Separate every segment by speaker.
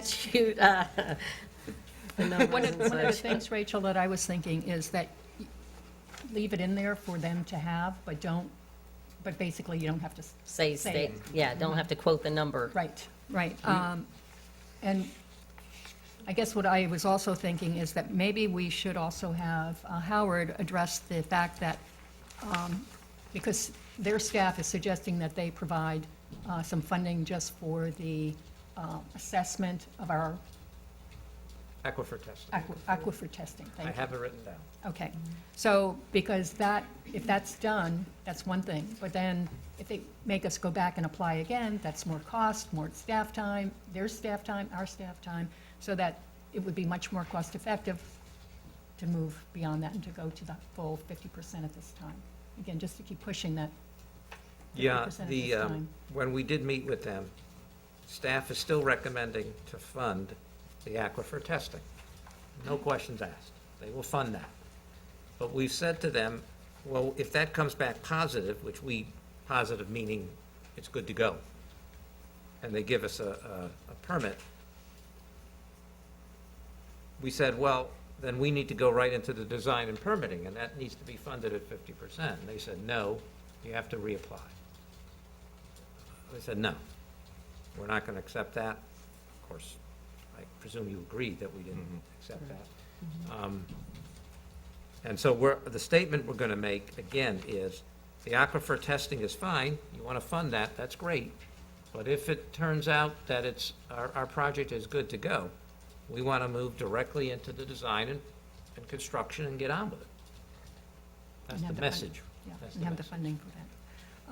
Speaker 1: statute, uh, the
Speaker 2: One
Speaker 1: numbers
Speaker 2: of, one of the
Speaker 1: and such.
Speaker 2: things, Rachel, that I was thinking is that y- leave it in there for them to have, but don't, but basically you don't have to, s-
Speaker 1: Say
Speaker 2: Say
Speaker 1: state,
Speaker 2: it.
Speaker 1: yeah, don't have to quote the number.
Speaker 2: right, right. Um, And I guess what I was also thinking is that maybe we should also have uh, Howard address the fact that, um, because their staff is suggesting that they provide uh, some funding just for the uh, assessment of our
Speaker 3: Aquifer testing.
Speaker 2: aqua- aquifer testing.
Speaker 3: I
Speaker 2: Thank you.
Speaker 3: have it written down.
Speaker 2: Okay, so, because that, if that's done, that's one thing, but then if they make us go back and apply again, that's more cost, more staff time, their staff time, our staff time, so that it would be much more cost-effective to move beyond that and to go to the full fifty percent at this time. Again, just to keep pushing that
Speaker 3: Yeah,
Speaker 2: 50% at
Speaker 3: the,
Speaker 2: this
Speaker 3: um,
Speaker 2: time.
Speaker 3: when we did meet with them, staff is still recommending to fund the aquifer testing. No questions asked. They will fund that. But we've said to them, well, if that comes back positive, which we, positive meaning it's good to go, and they give us a, a, a permit, we said, well, then we need to go right into the design and permitting, and that needs to be funded at fifty percent. And they said, no, you have to reapply. They said, no, we're not going to accept that. Of course, I presume you agree that we didn't accept that. Um, And so we're, the statement we're going to make, again, is the aquifer testing is fine, you want to fund that, that's great. But if it turns out that it's, our, our project is good to go, we want to move directly into the design and, and construction and get on with it.
Speaker 2: And
Speaker 3: That's the
Speaker 2: have the fun-
Speaker 3: message.
Speaker 2: Yeah,
Speaker 3: That's
Speaker 2: and
Speaker 3: the
Speaker 2: have the
Speaker 3: message.
Speaker 2: funding for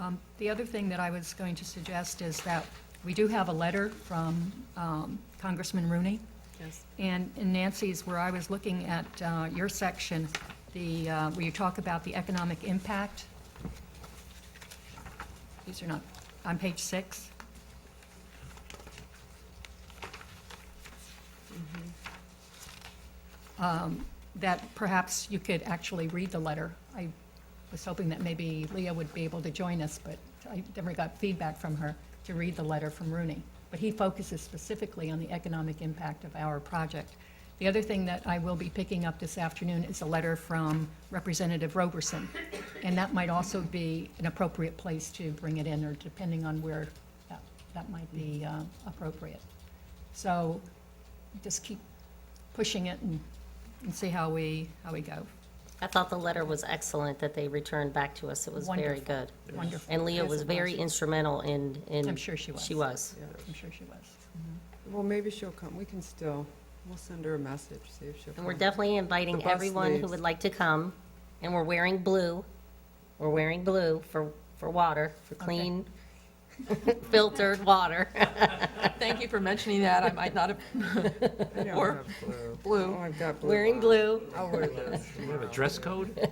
Speaker 2: that. Um, The other thing that I was going to suggest is that we do have a letter from um, Congressman Rooney.
Speaker 1: Yes.
Speaker 2: And in Nancy's, where I was looking at uh, your section, the, uh, where you talk about the economic impact. These are not, on page six. Um, That perhaps you could actually read the letter. I was hoping that maybe Leah would be able to join us, but I never got feedback from her to read the letter from Rooney. But he focuses specifically on the economic impact of our project. The other thing that I will be picking up this afternoon is a letter from Representative Roberson. And that might also be an appropriate place to bring it in, or depending on where that, that might be uh, appropriate. So just keep pushing it and, and see how we, how we go.
Speaker 1: I thought the letter was excellent that they returned back to us. It was very
Speaker 2: Wonderful.
Speaker 1: good.
Speaker 2: Wonderful.
Speaker 1: And Leah
Speaker 2: Yes,
Speaker 1: was
Speaker 2: it
Speaker 1: very instrumental in, in.
Speaker 2: I'm sure she was.
Speaker 1: She was.
Speaker 2: I'm sure she was.
Speaker 4: Well, maybe she'll come, we can still, we'll send her a message, see if she'll come.
Speaker 1: And we're definitely
Speaker 4: The
Speaker 1: inviting
Speaker 4: bus
Speaker 1: everyone who
Speaker 4: leaves.
Speaker 1: would like to come, and we're wearing blue. We're wearing blue for, for water, for clean, filtered water.
Speaker 5: Thank you for mentioning that. I might not have,
Speaker 4: I don't
Speaker 5: or-
Speaker 4: have blue.
Speaker 5: blue.
Speaker 4: Oh, I've got blue.
Speaker 1: Wearing
Speaker 4: on.
Speaker 1: blue.
Speaker 4: I'll wear this.
Speaker 3: Do we have a dress code?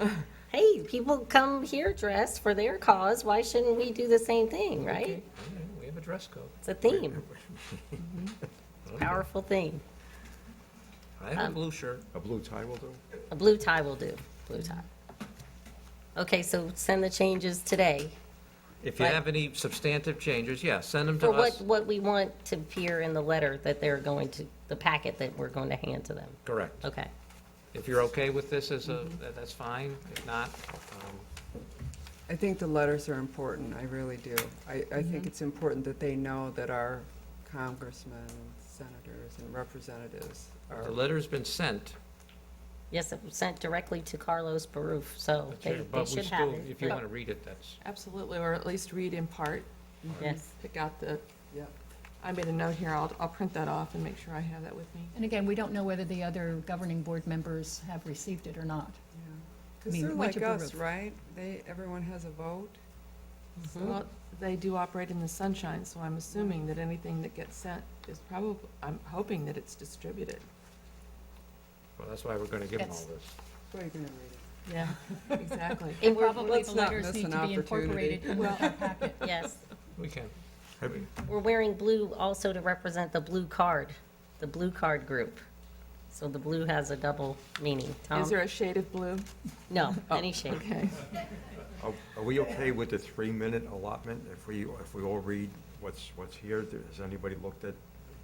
Speaker 1: Hey, people come here dressed for their cause. Why shouldn't we do the same thing, right?
Speaker 3: Yeah, We have a dress code.
Speaker 1: It's a theme. It's a Powerful theme.
Speaker 3: I
Speaker 1: Um,
Speaker 3: have a blue shirt.
Speaker 6: A blue tie will do?
Speaker 1: A blue tie will do, blue tie. Okay, so send the changes today
Speaker 3: If you
Speaker 1: Right.
Speaker 3: have any substantive changes, yeah, send them
Speaker 1: for
Speaker 3: to
Speaker 1: what,
Speaker 3: us.
Speaker 1: what we want to appear in the letter that they're going to, the packet that we're going to hand to them.
Speaker 3: Correct.
Speaker 1: Okay.
Speaker 3: If you're okay with this as a, that- that's fine. If not, um,
Speaker 4: I think the letters are important, I really do. I, I
Speaker 1: Mhm.
Speaker 4: think it's important that they know that our congressmen, senators, and representatives are,
Speaker 3: the letter's been sent.
Speaker 1: Yes, it was sent directly to Carlos Baruf, so
Speaker 3: but
Speaker 1: they,
Speaker 3: you-
Speaker 1: they
Speaker 3: but we
Speaker 1: should have
Speaker 3: still,
Speaker 1: it.
Speaker 3: if you want to read it, that's,
Speaker 5: Absolutely, or at least read in part.
Speaker 1: Yes.
Speaker 5: Pick out the,
Speaker 4: yeah.
Speaker 5: I made a note here. I'll, I'll print that off and make sure I have that with me.
Speaker 2: And again, we don't know whether the other governing board members have received it or not. I
Speaker 4: Because
Speaker 2: mean,
Speaker 4: they're
Speaker 2: once
Speaker 4: like
Speaker 2: you
Speaker 4: us,
Speaker 2: approve.
Speaker 4: right? They, everyone has a vote.
Speaker 5: Well, uh, they do operate in the sunshine, so I'm assuming that anything that gets sent is probably, I'm hoping that it's distributed.
Speaker 3: well, that's why we're going to give them all
Speaker 2: That's-
Speaker 3: this.
Speaker 4: Where are you going to read
Speaker 5: Yeah, exactly.
Speaker 1: And we're-
Speaker 2: Probably the
Speaker 4: not
Speaker 2: letters
Speaker 4: miss
Speaker 2: need
Speaker 4: an
Speaker 2: to be
Speaker 4: opportunity.
Speaker 2: incorporated in
Speaker 5: Well-
Speaker 2: our packet.
Speaker 1: Yes,
Speaker 3: We can.
Speaker 1: we're wearing blue also to represent the blue card, the blue card group. So the blue has a double meaning. Tom?
Speaker 5: Is there Oh. a shade of blue?
Speaker 1: No, any shade.
Speaker 5: Okay.
Speaker 6: Are- Are we okay with the three-minute allotment? If we, if we all read what's, what's here, has anybody looked at